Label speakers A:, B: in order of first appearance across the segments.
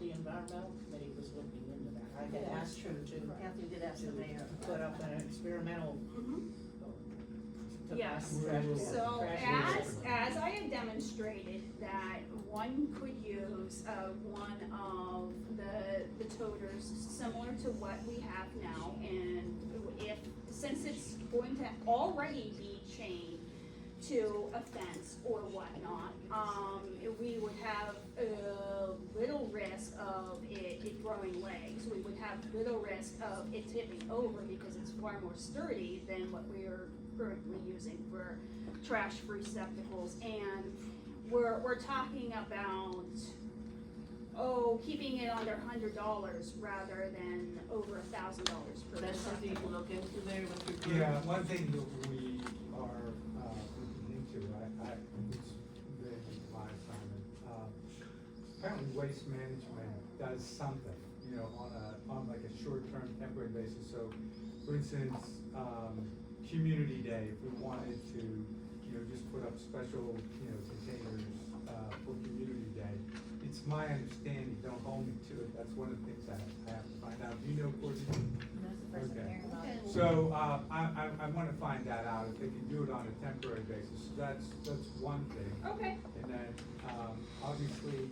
A: Environmental Committee was looking into that. I had
B: Yeah.
A: asked him to, to
B: Kathy did ask the mayor.
A: put up an experimental. to
C: Yes.
A: trash-
C: Mm-hmm. So
A: trash
C: as,
A: removal.
C: as I have demonstrated that one could use, uh, one of the, the toters similar to what we have now and if, since it's going to already be chained to a fence or whatnot, um, we would have a little risk of it, it growing legs. We would have little risk of it tipping over because it's far more sturdy than what we are currently using for trash receptacles. And we're, we're talking about, oh, keeping it under hundred dollars rather than over a thousand dollars per
B: That's something you
C: receptacle.
B: can look into there with your.
D: Yeah, one thing that we are, uh, looking into, I, I, it's been my assignment, uh, apparently waste management does something, you know, on a, on like a short-term temporary basis, so, for instance, um, community day, if we wanted to, you know, just put up special, you know, containers, uh, for community day, it's my understanding, don't hold me to it, that's one of the things I, I have to find out, do you know, Courtney?
E: That's the first I'm
D: Okay.
E: hearing about. it.
D: So, uh, I, I, I wanna find that out, if they can do it on a temporary basis, so that's, that's one thing.
C: Okay,
D: And then, um, obviously,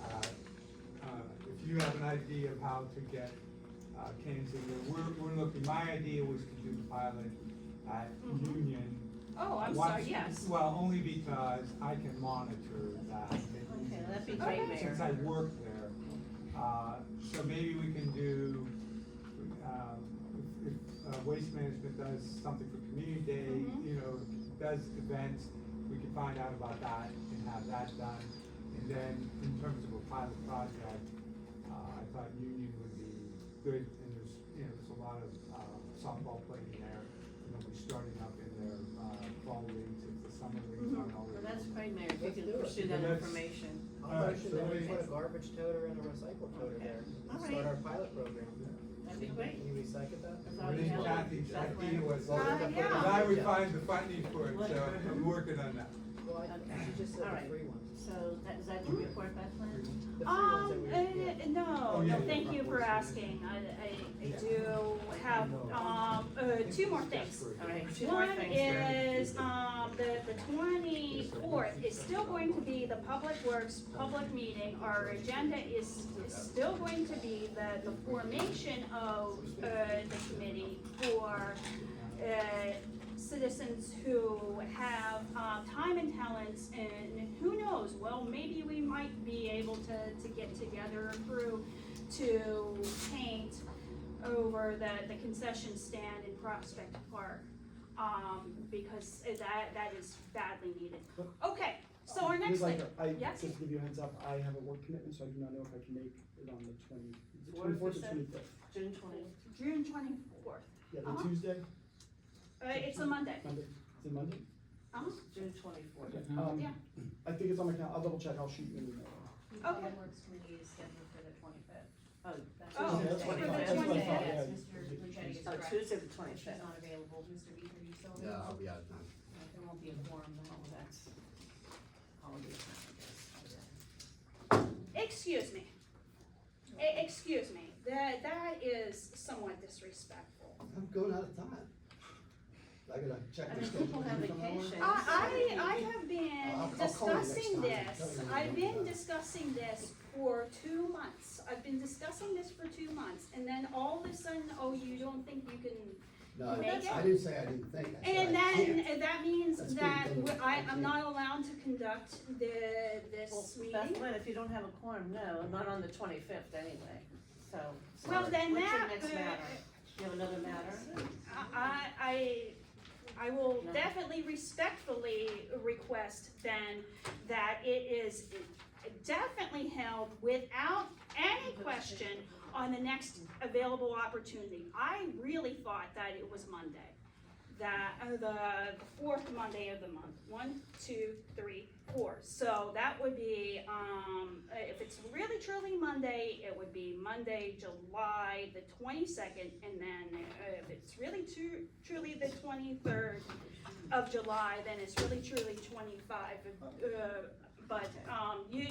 D: uh, uh, if you have an idea of how to get, uh, cans in there, we're, we're looking, my idea was to do the pilot at
C: Mhm.
D: Union.
C: oh, I'm
D: Watch-
C: sorry, yes.
D: Well, only because I can monitor that.
B: Okay, that'd be
C: great,
B: Mayor.
D: Since I work there, uh, so maybe we can do, um, if, if uh, Waste Management does something for Community Day,
B: Mm-hmm.
C: Mhm.
D: you know, does events, we can find out about that and have that done. And then in terms of a pilot project, uh, I thought Union would be good, and there's, you know, there's a lot of, uh, softball playing there. And then we starting up in their, uh, fall leagues, if the summer leagues
B: Mm-hmm.
D: aren't
B: Well,
D: already.
B: that's great, Mayor,
A: Let's
B: if you
A: do
B: can
A: it.
B: pursue that
D: Yeah, that's-
B: information.
D: All
F: I'll
D: right,
F: motion
D: so
F: that
D: let
F: we
D: me-
F: put a garbage toter and a recycle toter
B: Okay.
F: there,
B: All
F: and start
B: right.
F: our pilot program.
B: That'd be great.
F: Can you recycle that?
B: That's all
D: I
B: we
D: think
B: know.
D: Kathy's
B: That's
D: idea
B: right.
D: was,
F: Well,
C: Uh,
F: then I put it
C: yeah.
D: because
F: on
D: I
F: the
D: would
F: agenda.
D: find the funding for it, so I'm working on that.
F: Well, I,
B: Okay.
F: you just
B: All
F: said
B: right.
F: the free ones.
B: So that, is that your report back, Lynn?
D: Mm-hmm.
F: The free ones that
C: Um,
F: we-
C: uh,
F: yeah.
D: Oh,
C: no,
D: yeah,
C: no,
D: yeah,
C: thank you
D: front
C: for
D: porch.
C: asking, I, I, I
D: Yeah.
C: do have,
D: No.
C: um, uh, two more things.
B: All right, two more
C: One
B: things.
C: is, um, the, the twenty-fourth is still going to be the Public Works public meeting. Our agenda is, is still going to be the, the formation of, uh, the committee for, uh, citizens who have, uh, time and talents and who knows, well, maybe we might be able to, to get together a crew to paint over the, the concession stand in Prospect Park um, because that, that is badly needed. Okay, so our next
G: Ms.
C: thing,
G: Leica, I,
C: Yes?
G: just to give you a heads up, I have a work commitment, so I do not know if I can make it on the twenty, the
B: Fourth, you
G: twenty-fourth or
B: said?
G: twenty-fifth.
B: June twentieth.
C: June twenty-fourth,
G: Yeah,
C: Uh-huh.
G: the Tuesday,
C: uh, it's a Monday.
G: Monday, is it Monday?
C: Uh-huh.
B: June twenty-fourth.
G: Um,
C: Yeah.
G: I think it's on my calendar, I'll double check, I'll shoot you an email.
E: The
C: Okay.
E: Public Works Committee is scheduled for the twenty-fifth.
B: Oh,
C: Oh,
B: Tuesday, the
G: Yeah, that's
B: 25th.
G: what I thought, that's what I
C: Tuesday.
G: thought,
E: Yes,
G: yeah.
E: Mr. Lucetti is
B: Oh,
E: correct.
B: Tuesday the
E: She's
B: 25th.
E: not available, Mr. Beaver, you still
H: Yeah,
E: available?
H: I'll be out of time.
E: Uh, There won't be a forum, then all of that's, all of these, I guess.
C: Excuse me. E- excuse me, that, that is somewhat disrespectful.
H: I'm going out of time. I gotta check.
B: I
H: my
B: mean,
H: schedule.
B: people have
H: You come over?
B: vacations.
C: I, I, I have
H: I'll-
C: been
H: I'll call you next
C: discussing
H: time.
C: this, I've been discussing this for two months. I've been discussing this for two months, and then all of a sudden, oh, you don't think you can
H: No, I
C: Make
H: didn't- I
C: it?
H: didn't say I didn't think. I said
C: And
H: I
C: then,
H: can't.
C: and that means
H: That's
C: that
H: being done.
C: we- I,
H: I
C: I'm
H: can't.
C: not allowed to conduct the,
B: Well,
C: this
B: Beth
C: meeting.
B: Lynn, if you don't have a quorum, no, not on the twenty-fifth anyway, so.
C: Well, then
B: What's your
C: that,
B: next
C: uh,
B: matter? You have another matter?
C: I, I, I will
B: No.
C: definitely respectfully request then that it is definitely held without any question on the next available opportunity. I really thought that it was Monday, that, uh, the fourth Monday of the month, one, two, three, four. So that would be, um, uh, if it's really truly Monday, it would be Monday, July the twenty-second, and then uh, if it's really tru- truly the twenty-third of July, then it's really truly twenty-five, uh, but, um, you,